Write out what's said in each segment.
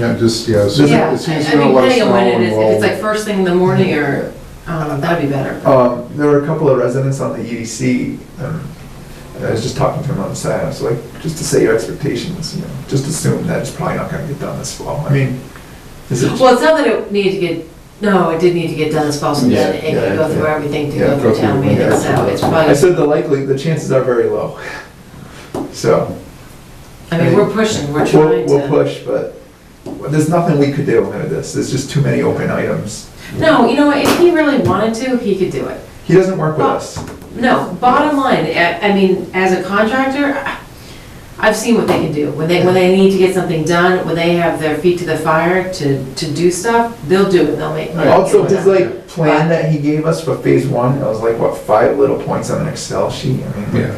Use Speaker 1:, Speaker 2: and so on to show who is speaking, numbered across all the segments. Speaker 1: Yeah, just, yeah, as soon
Speaker 2: Yeah,
Speaker 1: as as soon as
Speaker 2: I
Speaker 1: you
Speaker 2: mean,
Speaker 1: know, let us know.
Speaker 2: depending on when it
Speaker 1: and
Speaker 2: is, if it's
Speaker 1: we'll-
Speaker 2: like first thing in the morning or, um, that'd be better.
Speaker 3: Um, there were a couple of residents on the EDC, um, and I was just talking to them on the side, I was like, just to set your expectations, you know, just assume that it's probably not gonna get done this fall, I mean, is it?
Speaker 2: Well, it's not that it needed to get, no, it did need to get done as possible,
Speaker 1: Yeah,
Speaker 2: then it
Speaker 3: yeah,
Speaker 2: could go through
Speaker 3: yeah.
Speaker 2: everything to
Speaker 3: Yeah,
Speaker 2: go
Speaker 1: go
Speaker 2: through town
Speaker 1: through,
Speaker 2: meeting,
Speaker 3: yeah.
Speaker 2: so it's
Speaker 3: I
Speaker 2: probably,
Speaker 3: said the likely, the chances are very low, so.
Speaker 2: I mean, we're pushing, we're
Speaker 3: we'll-
Speaker 2: trying
Speaker 3: We'll
Speaker 2: to.
Speaker 3: push, but there's nothing we could do under this, there's just too many open items.
Speaker 2: No, you know what, if he really wanted to, he could do it.
Speaker 3: He doesn't work
Speaker 2: Oh.
Speaker 3: with us.
Speaker 2: No, bottom line, I, I mean, as a contractor, I- I've seen what they can do. When they, when they need to get something done, when they have their feet to the fire to, to do stuff, they'll do it, they'll make. they'll
Speaker 3: Also,
Speaker 2: get it
Speaker 3: his
Speaker 2: done.
Speaker 3: like plan that he gave us for phase one, it was like, what, five little points on an Excel sheet? I mean,
Speaker 1: Yeah.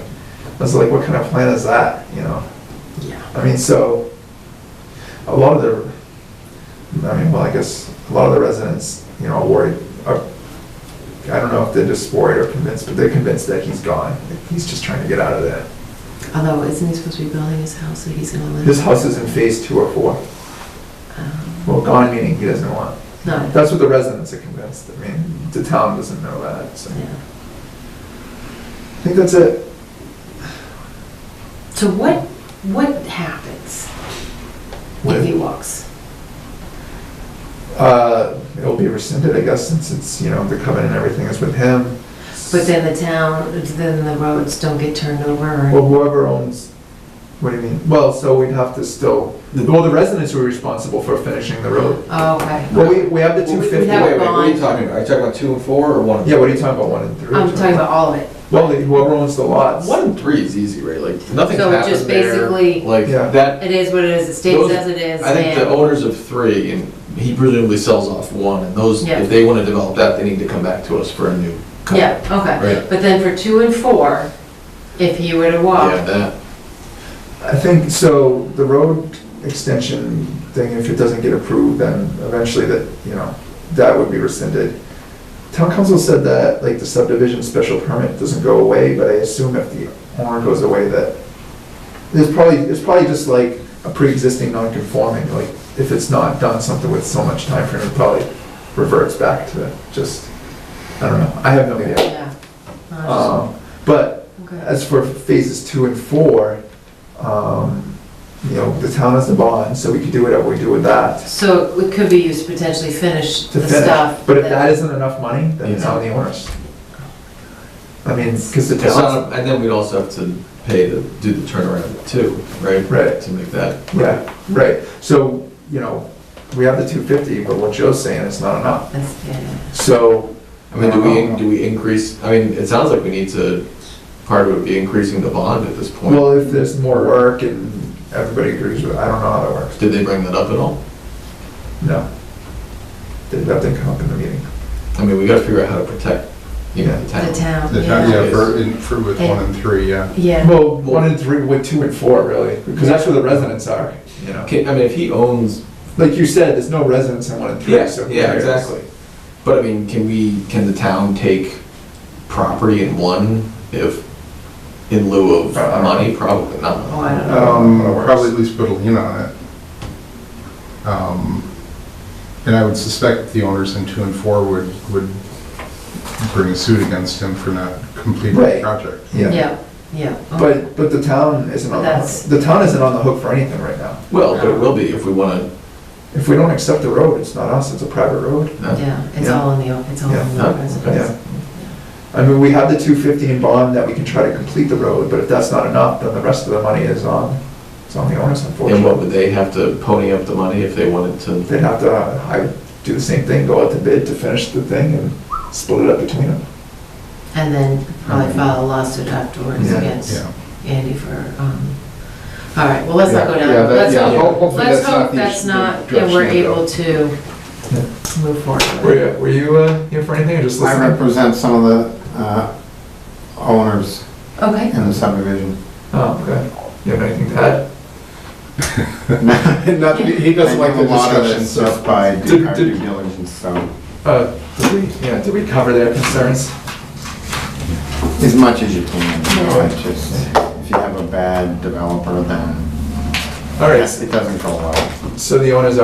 Speaker 3: I was like, what kind of plan is that, you know?
Speaker 2: Yeah.
Speaker 3: I mean, so, a lot of the, I mean, well, I guess, a lot of the residents, you know, are worried, are, I don't know if they're just worried or convinced, but they're convinced that he's gone. He's just trying to get out of there.
Speaker 2: Although, isn't he supposed to be building his house, so he's gonna live?
Speaker 3: His house is in phase two or four.
Speaker 2: Um,
Speaker 3: Well, gone meaning he doesn't want.
Speaker 2: No,
Speaker 3: That's what the residents are convinced. I mean, the town doesn't know that, so.
Speaker 2: yeah.
Speaker 3: I think that's it.
Speaker 2: So what, what happens if he walks?
Speaker 3: Uh, it'll be rescinded, I guess, since it's, you know, the covenant and everything is with him.
Speaker 2: But then the town, then the roads don't get turned over or?
Speaker 3: Well, whoever owns, what do you mean? Well, so we'd have to still, well, the residents were responsible for finishing the road.
Speaker 2: Oh, okay.
Speaker 3: Well, we, we have the two
Speaker 2: We
Speaker 3: fifty.
Speaker 2: have-
Speaker 4: Wait, wait, what are you talking about? Are you talking about two and four or one and
Speaker 3: Yeah, what are you talking about, one and 3
Speaker 2: I'm talking about all of it.
Speaker 3: Well, the- whoever owns the lots.
Speaker 4: One and three is easy, right? Like, nothing
Speaker 2: So it
Speaker 4: happened
Speaker 2: just
Speaker 4: there.
Speaker 2: basically-
Speaker 4: Like,
Speaker 3: Yeah.
Speaker 4: that,
Speaker 2: It is what it is, it stays
Speaker 4: Those-
Speaker 2: as it is
Speaker 4: I think the
Speaker 2: and,
Speaker 4: owners of three, and he presumably sells off one, and those,
Speaker 2: Yeah.
Speaker 4: if they want to develop that, they need to come back to us for a new. cut.
Speaker 2: yeah, okay.
Speaker 4: Right.
Speaker 2: But then for two and four, if he were to
Speaker 4: Yeah,
Speaker 2: walk,
Speaker 4: that,
Speaker 3: I think, so the road extension thing, if it doesn't get approved, then eventually that, you know, that would be rescinded. Town council said that, like, the subdivision special permit doesn't go away, but I assume if the owner goes away, that there's probably, it's probably just like a pre-existing non-conforming, like, if it's not done something with so much time frame, it probably reverts back to just, I don't know, I have no idea.
Speaker 2: yeah. Uh,
Speaker 3: Um, But
Speaker 2: okay.
Speaker 3: as for phases two and four, um, you know, the town has the bond, so we could do whatever we do with that
Speaker 2: So it could be used to potentially finish
Speaker 3: to
Speaker 2: the
Speaker 3: finish.
Speaker 2: stuff.
Speaker 3: But if that isn't enough money, then it's
Speaker 4: Yeah.
Speaker 3: on the owners. I mean, because the
Speaker 4: it's
Speaker 3: town,
Speaker 4: not- and then we'd also have to pay to do the turnaround too, right?
Speaker 3: Right.
Speaker 4: To make that.
Speaker 3: yeah, right, so, you know, we have the two fifty, but what Joe's saying is not enough.
Speaker 2: That's- yeah, yeah.
Speaker 3: So, um,
Speaker 4: I mean, do we, do we increase, I mean, it sounds like we need to, part of it would be increasing the bond at this point.
Speaker 3: well, if there's more work and everybody agrees with, I don't know how that works,
Speaker 4: Did they bring that up at all?
Speaker 3: no. That that didn't come up in the meeting.
Speaker 4: I mean, we gotta figure out how to protect, you know, the
Speaker 2: The
Speaker 4: town.
Speaker 2: town,
Speaker 1: The town,
Speaker 2: yeah.
Speaker 1: yeah, for, in- for with one and three, yeah.
Speaker 2: Yeah,
Speaker 3: Well, one and three, with two and four, really, because that's where the residents are, you know.
Speaker 4: Okay, I mean, if he owns
Speaker 3: Like you said, there's no residents in one and three,
Speaker 4: Yes,
Speaker 3: so. who
Speaker 4: yeah,
Speaker 3: cares?
Speaker 4: exactly. But I mean, can we, can the town take property in one if, in lieu of
Speaker 3: Uh,
Speaker 4: money? Probably not.
Speaker 2: oh, I don't know.
Speaker 1: Um,
Speaker 3: That works.
Speaker 1: probably at least put a lien on it. Um, and I would suspect the owners in two and four would, would bring a suit against him for not completing the
Speaker 3: Right.
Speaker 1: project.
Speaker 3: Yeah,
Speaker 2: Yeah, yeah. Oh, okay.
Speaker 3: but, but the town isn't on, the
Speaker 2: That's-
Speaker 3: hook- the town isn't on the hook for anything right now.
Speaker 4: Well, but it will be if we wanna,
Speaker 3: If we don't accept the road, it's not us, it's a private road.
Speaker 4: no,
Speaker 2: Yeah, it's
Speaker 3: Yeah.
Speaker 2: all in the, it's all in
Speaker 4: Yeah.
Speaker 2: the
Speaker 4: Okay.
Speaker 2: residence.
Speaker 3: I mean, we have the two fifty in bond that we can try to complete the road, but if that's not enough, then the rest of the money is on, it's on the owners
Speaker 4: and what
Speaker 3: unfortunately.
Speaker 4: would they have to pony up the money if they wanted to?
Speaker 3: They'd have to, uh, I, do the same thing, go out to bid to finish the thing and split it up between them.
Speaker 2: And then probably file a lawsuit afterwards
Speaker 3: Yeah,
Speaker 2: against
Speaker 1: Mm-hmm. Yeah.
Speaker 2: Andy for, um, all right, well, let's not go down.
Speaker 1: Yeah, that-
Speaker 2: Let's
Speaker 1: yeah,
Speaker 2: hope-
Speaker 1: ho- hopefully
Speaker 2: Let's
Speaker 1: that's not
Speaker 2: hope
Speaker 1: the
Speaker 2: that's
Speaker 1: issue-
Speaker 2: not,
Speaker 1: the
Speaker 2: and we're
Speaker 1: direction to go.
Speaker 2: able to
Speaker 3: Yeah.
Speaker 2: move forward.
Speaker 3: Were you, were you, uh, here for anything or just
Speaker 5: I
Speaker 3: listening?
Speaker 5: represent some of the uh, owners
Speaker 2: Okay,
Speaker 5: in the subdivision.
Speaker 3: Oh, okay. You have anything to add?
Speaker 1: Not, he doesn't like the
Speaker 5: I do a lot of
Speaker 1: discussion,
Speaker 5: this
Speaker 1: so.
Speaker 5: Just by
Speaker 3: Did-
Speaker 5: due our
Speaker 3: did-
Speaker 5: due diligence, so,
Speaker 3: Uh, did we, yeah, did we cover their concerns?
Speaker 5: as much as you can. you know,
Speaker 2: Yeah.
Speaker 5: it's just, if you have a bad developer, then
Speaker 3: All right,
Speaker 5: it doesn't go well.
Speaker 3: so the owners are.